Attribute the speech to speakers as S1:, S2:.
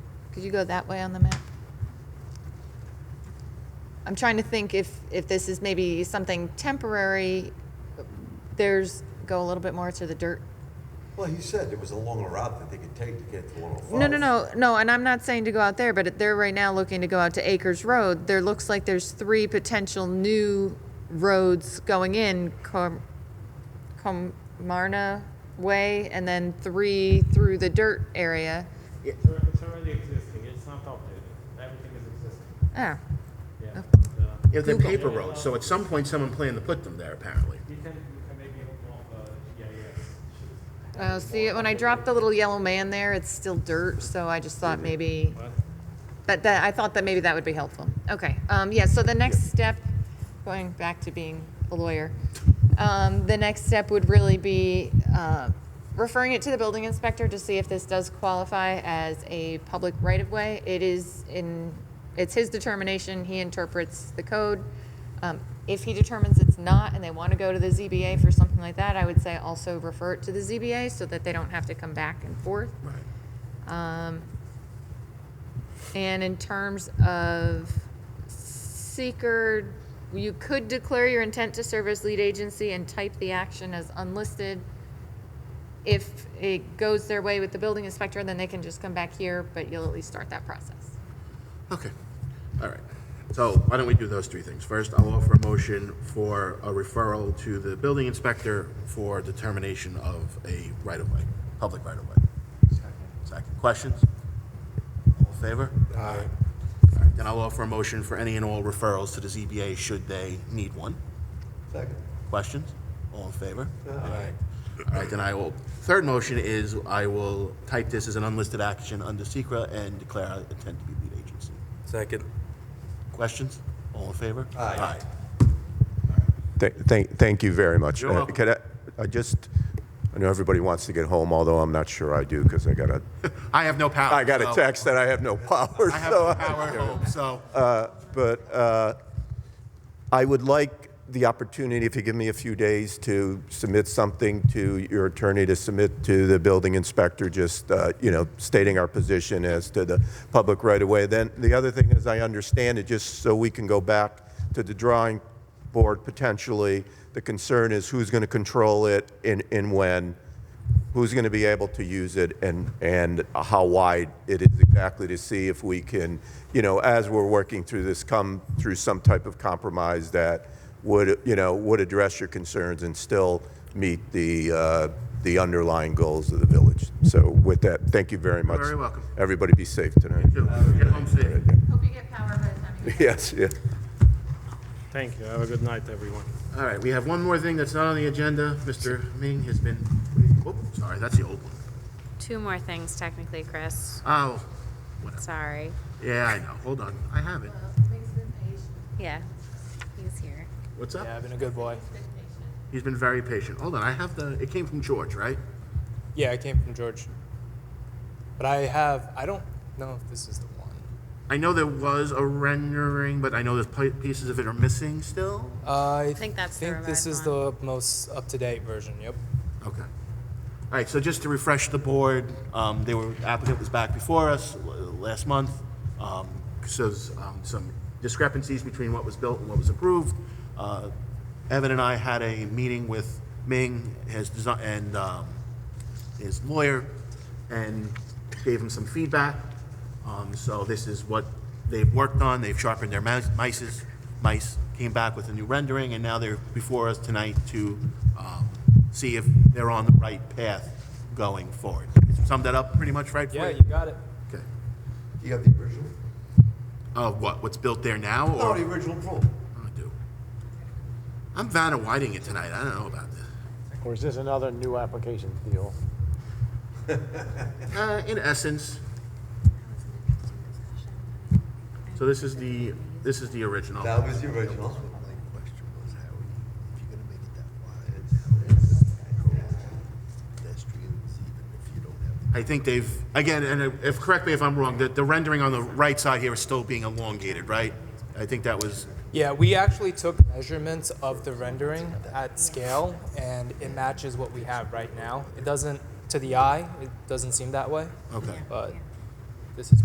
S1: Could you go that way on the map? I'm trying to think if, if this is maybe something temporary, there's, go a little bit more to the dirt.
S2: Well, he said there was a longer route that they could take to get to 105.
S1: No, no, no, no, and I'm not saying to go out there, but they're right now looking to go out to Acres Road. There looks like there's three potential new roads going in, Com- Comarna Way, and then three through the dirt area.
S3: It's alre- it's already existing, it's not updated, everything is existing,
S1: Ah,
S3: yeah. Uh,
S4: Yeah, they're paper roads, so at some point, someone planned to put them there, apparently.
S3: You can, you can maybe open up, uh, yeah, yeah.
S1: Oh, see, when I dropped the little yellow man there, it's still dirt, so I just thought maybe, that, that, I thought that maybe that would be helpful. Okay, um, yeah, so the next step, going back to being a lawyer, um, the next step would really be, uh, referring it to the building inspector to see if this does qualify as a public right-of-way. It is in, it's his determination, he interprets the code. Um, If he determines it's not and they want to go to the ZBA for something like that, I would say also refer it to the ZBA so that they don't have to come back and forth.
S4: Right.
S1: Um, And in terms of seeker, you could declare your intent to serve as lead agency and type the action as unlisted. If it goes their way with the building inspector, then they can just come back here, but you'll at least start that process.
S4: Okay, all right. So why don't we do those three things? First, I'll offer a motion for a referral to the building inspector for determination of a right-of-way, public right-of-way. Second, questions? All in favor? Aye. Then I'll offer a motion for any and all referrals to the ZBA should they need one.
S2: Second.
S4: Questions? All in favor? All right, then I will, third motion is I will type this as an unlisted action under Secra and declare I intend to be lead agency.
S5: Second.
S4: Questions? All in favor?
S2: Aye.
S6: Th- Thank, thank you very much.
S4: You're
S6: Uh,
S4: welcome.
S6: Could I, I just, I know everybody wants to get home, although I'm not sure I do, because I got a,
S4: I have Oh, no power.
S6: I got a
S4: so-
S6: text that I have no power,
S4: I have
S6: so
S4: no
S6: I-
S4: power at home, so.
S6: but uh, I would like the opportunity, if you give me a few days, to submit something to your attorney, to submit to the building inspector, just, uh, you know, stating our position as to the public right-of-way. Then, the other thing, as I understand it, just so we can go back to the drawing board potentially, the concern is who's going to control it and, and when, who's going to be able to use it and, and how wide it is exactly to see if we can, you know, as we're working through this, come through some type of compromise that would, you know, would address your concerns and still meet the, uh, the underlying goals of the village. So with that, thank you very much.
S4: very welcome.
S6: Everybody be safe tonight.
S4: Get home safe.
S1: Hope you get power by the time you
S6: Yes, yeah.
S3: Thank you, have a good night, everyone.
S4: All right, we have one more thing that's not on the agenda. Mr. Ming has been, oh, sorry, that's the old one.
S7: Two more things technically, Chris.
S4: Oh, whatever.
S7: Sorry.
S4: Yeah, I know. Hold on. I have it.
S7: Yeah, he's here.
S4: What's up?
S5: Yeah, I've been a good boy.
S4: He's been very patient. Hold on, I have the, it came from George, right?
S5: Yeah, I came from George. But I have, I don't know if this is the one.
S4: I know there was a rendering, but I know there's pi- pieces of it are missing still.
S5: I
S7: think that's the
S5: think this is
S7: revised
S5: the most up to date version. Yep.
S4: Okay. All right, so just to refresh the board, um, they were, applicant was back before us l- last month. Um, so there's, um, some discrepancies between what was built and what was approved. Uh, Evan and I had a meeting with Ming, his design, and, um, his lawyer, and gave him some feedback. Um, so this is what they've worked on, they've sharpened their mice, mices, mice, came back with a new rendering, and now they're before us tonight to, um, see if they're on the right path going forward. Sum that up pretty much right for you?
S5: Yeah, you got it.
S4: Okay.
S2: You have the original?
S4: Uh, what, what's built there now,
S2: No,
S4: or?
S2: the original approval.
S4: I do. I'm Vanna Whiting it tonight, I don't know about this.
S8: Or is this another new application deal?
S4: Uh, in essence. So this is the, this is the original.
S2: That was the original.
S4: I think they've, again, and if, correct me if I'm wrong, the, the rendering on the right side here is still being elongated, right? I think that was,
S5: Yeah, we actually took measurements of the rendering at scale, and it matches what we have right now. It doesn't, to the eye, it doesn't seem that way,
S4: okay.
S5: but this is